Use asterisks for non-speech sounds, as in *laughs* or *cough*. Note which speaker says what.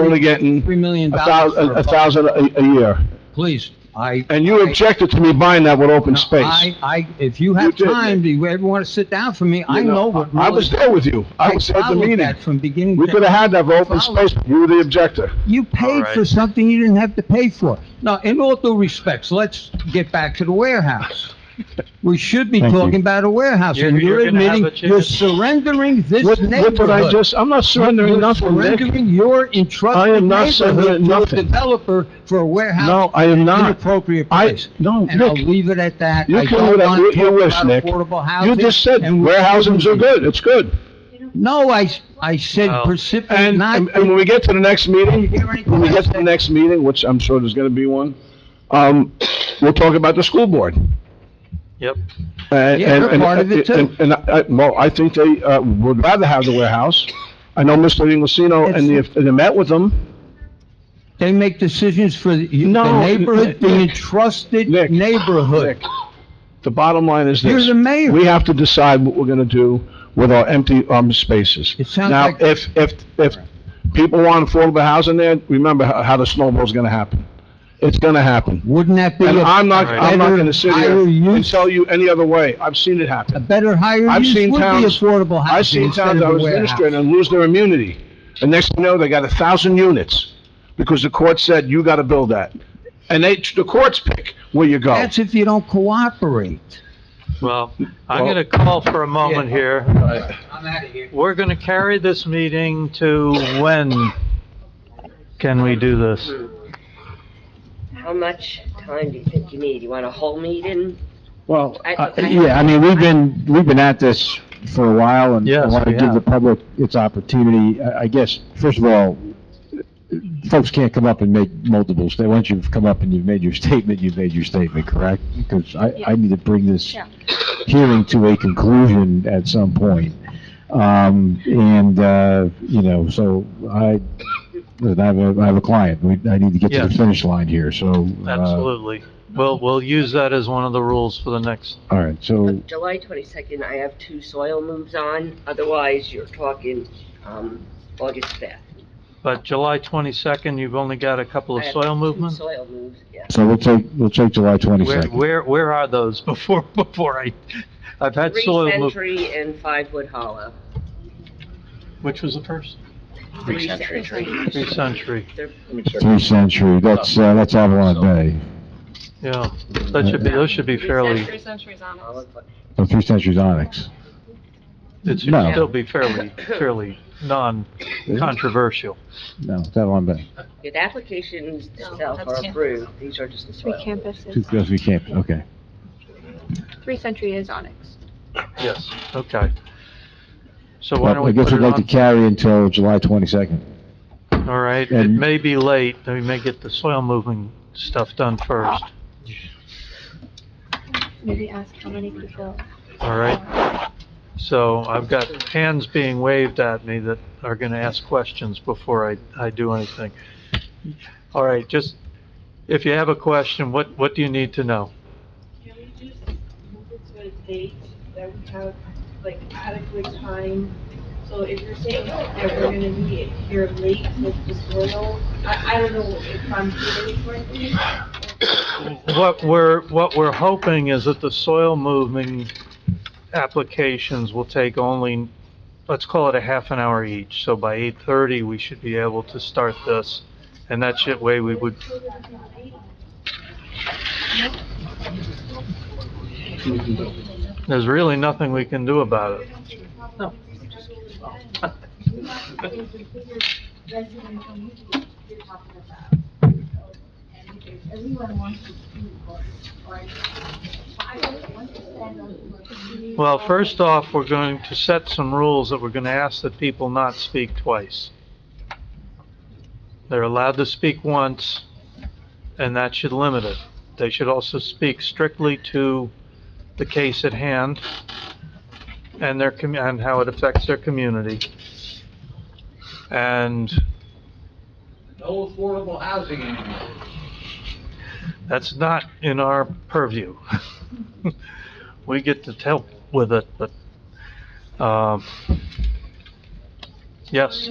Speaker 1: only getting
Speaker 2: Three million
Speaker 1: a thou,
Speaker 2: dollars for
Speaker 1: a
Speaker 2: a
Speaker 1: a
Speaker 2: boat.
Speaker 1: thousand a, a year.
Speaker 2: Please, I.
Speaker 1: And you objected to me buying that with open
Speaker 2: No,
Speaker 1: space.
Speaker 2: I, I, if you
Speaker 1: You
Speaker 2: have
Speaker 1: did.
Speaker 2: time, do you ever want to sit down for me? I
Speaker 1: You
Speaker 2: know what
Speaker 1: I
Speaker 2: really.
Speaker 1: was there with you. I was at the
Speaker 2: followed
Speaker 1: meeting.
Speaker 2: that From beginning
Speaker 1: We could
Speaker 2: to,
Speaker 1: have had that for open
Speaker 2: Follow-
Speaker 1: space, but you were the objector.
Speaker 2: you paid
Speaker 3: Alright.
Speaker 2: for something you didn't have to pay for. Now, in all due respects, let's get back to the warehouse. We should be
Speaker 1: Thank you.
Speaker 2: talking about a warehouse
Speaker 3: You're-
Speaker 2: and you're
Speaker 3: you're gonna have
Speaker 2: admitting,
Speaker 3: a chicken-
Speaker 2: you're surrendering this
Speaker 1: What,
Speaker 2: neighborhood.
Speaker 1: what did I just, I'm not surrendering
Speaker 2: You're
Speaker 1: nothing, Nick.
Speaker 2: surrendering your
Speaker 1: I
Speaker 2: entrusted
Speaker 1: am not
Speaker 2: neighborhood
Speaker 1: surrendering
Speaker 2: to a
Speaker 1: nothing.
Speaker 2: developer for a warehouse.
Speaker 1: No, I am not.
Speaker 2: inappropriate
Speaker 1: I,
Speaker 2: place.
Speaker 1: no,
Speaker 2: And I'll
Speaker 1: Nick,
Speaker 2: leave it at that.
Speaker 1: You
Speaker 2: I
Speaker 1: can
Speaker 2: don't
Speaker 1: do that.
Speaker 2: want
Speaker 1: You-
Speaker 2: to
Speaker 1: you
Speaker 2: talk
Speaker 1: wish,
Speaker 2: about
Speaker 1: Nick.
Speaker 2: affordable
Speaker 1: you
Speaker 2: housing,
Speaker 1: just said
Speaker 2: and we
Speaker 1: warehouses are
Speaker 2: shouldn't be.
Speaker 1: good, it's good.
Speaker 2: No, I, s- I said
Speaker 3: Well,
Speaker 2: precipitate,
Speaker 1: And, um,
Speaker 2: not.
Speaker 1: and and when we get to the next meeting,
Speaker 2: Did you hear anything
Speaker 1: when we
Speaker 2: I
Speaker 1: get to the
Speaker 2: said?
Speaker 1: next meeting, which I'm sure there's gonna be one, um, we'll talk about the school board.
Speaker 3: Yep.
Speaker 1: And-
Speaker 2: Yeah,
Speaker 1: and-
Speaker 2: they're
Speaker 1: and-
Speaker 2: part of it, too.
Speaker 1: and- And, I, well, I think they, uh, would rather have the warehouse. I know Mr. Inglesino and the,
Speaker 2: It's-
Speaker 1: and I met with them.
Speaker 2: They make decisions for the you-
Speaker 1: No,
Speaker 2: the neighborhood, the
Speaker 1: Nick.
Speaker 2: entrusted
Speaker 1: Nick.
Speaker 2: neighborhood.
Speaker 1: Nick, The bottom line is
Speaker 2: You're
Speaker 1: this.
Speaker 2: the mayor.
Speaker 1: We have to decide what we're gonna do with our empty, um, spaces.
Speaker 2: It sounds
Speaker 1: Now,
Speaker 2: like-
Speaker 1: if, if, if people want affordable housing there, remember how, how the snowball's gonna happen. It's gonna happen.
Speaker 2: Wouldn't that be
Speaker 1: And
Speaker 2: a
Speaker 1: I'm not,
Speaker 3: All right.
Speaker 1: I'm not gonna sit here
Speaker 2: Better use-
Speaker 1: and tell you any other way. I've seen it
Speaker 2: a
Speaker 1: happen.
Speaker 2: better higher
Speaker 1: I've
Speaker 2: use
Speaker 1: seen
Speaker 2: would be
Speaker 1: towns-
Speaker 2: affordable
Speaker 1: I've
Speaker 2: housing
Speaker 1: seen
Speaker 2: instead
Speaker 1: towns
Speaker 2: of
Speaker 1: I
Speaker 2: a
Speaker 1: was administrating
Speaker 2: warehouse.
Speaker 1: and lose their immunity. And next thing you know, they got a thousand units because the court said, you gotta build that. And they, the courts pick where you go.
Speaker 2: That's if you don't cooperate.
Speaker 3: Well, I'm
Speaker 1: Well-
Speaker 3: going to call for a moment
Speaker 2: Yeah.
Speaker 3: here.
Speaker 2: I'm out of here.
Speaker 3: We're going to carry this meeting to when can we do this?
Speaker 4: How much time do you think you need? You want a whole meeting?
Speaker 5: Well,
Speaker 4: I-
Speaker 5: uh, yeah, I mean, we've been, we've been at this for a while, and I
Speaker 3: Yes,
Speaker 5: want to
Speaker 3: we
Speaker 5: give
Speaker 3: have.
Speaker 5: the public its opportunity. I I guess, first of all, folks can't come up and make multiple sta, once you've come up and you've made your *laughs* statement, you've made your statement, correct? Because I, I need to bring this
Speaker 6: Yeah.
Speaker 5: hearing to a conclusion at some point. Um, and, uh, you know, so I, listen, I have a, I have a client, We- I need to get to the
Speaker 3: Yes.
Speaker 5: finish line here, so. uh,
Speaker 3: Absolutely. We'll, we'll use that as one of the rules for the next.
Speaker 5: All right, so.
Speaker 4: July twenty-second, I have two soil moves on, otherwise you're talking, um, August fifth.
Speaker 3: But July 22nd, you've only got a couple of
Speaker 4: I have
Speaker 3: soil
Speaker 4: two
Speaker 3: movements?
Speaker 4: Soil moves, yeah.
Speaker 5: So we'll take, we'll take July
Speaker 3: Where,
Speaker 5: 22nd.
Speaker 3: where, where are those *laughs* before, before I, I've had
Speaker 4: Three
Speaker 3: soil move,
Speaker 4: Century and Five Wood Hollow.
Speaker 3: which was the first?
Speaker 4: Three Century.
Speaker 3: Three century,
Speaker 4: They're-
Speaker 5: Three Century, that's, uh, that's Avalon Bay.
Speaker 3: yeah. That should be, those should be fairly,
Speaker 6: Three centuries on
Speaker 4: all
Speaker 6: us.
Speaker 4: of-
Speaker 5: No, Oh, Three Century's Onyx.
Speaker 3: it should
Speaker 5: No.
Speaker 3: still be fairly, fairly non-controversial.
Speaker 5: No, it's Avalon Bay.
Speaker 4: The applications
Speaker 6: No,
Speaker 4: themselves
Speaker 6: that's
Speaker 4: are
Speaker 6: campus.
Speaker 4: approved, these are just the
Speaker 6: Three
Speaker 4: soil.
Speaker 5: Two,
Speaker 6: campuses.
Speaker 5: those we can't, okay.
Speaker 6: Three century is Onyx.
Speaker 3: Yes, okay. So why don't
Speaker 5: Well, I
Speaker 3: we
Speaker 5: guess
Speaker 3: put
Speaker 5: we'd
Speaker 3: it
Speaker 5: like to
Speaker 3: on,
Speaker 5: carry until July 22nd.
Speaker 3: all right, it
Speaker 5: and-
Speaker 3: may be late, we may get the soil moving stuff done first,
Speaker 6: Maybe ask how many people.
Speaker 3: all right? So I've got hands being waved at me that are gonna ask questions before I, I do anything. All right, just, if you have a question, what, what do you need to know?
Speaker 7: Can we just move it to a date that we have, like, adequate time? So if you're saying that we're gonna be here late with the soil, I, I don't know if I'm hearing it correctly.
Speaker 3: What we're, what we're hoping is that the soil moving applications will take only, let's call it a half an hour each. So by 8:30, we should be able to start this, and that shit way we would, there's really nothing we can do about it. Well, first off, we're going to set some rules that we're going to ask that people not speak twice. They're allowed to speak once, and that should limit it. They should also speak strictly to the case at hand and their, commu- and how it affects their community. And
Speaker 8: No affordable housing anymore.
Speaker 3: that's not in our purview. *laughs* We get to help with it, but, um, yes.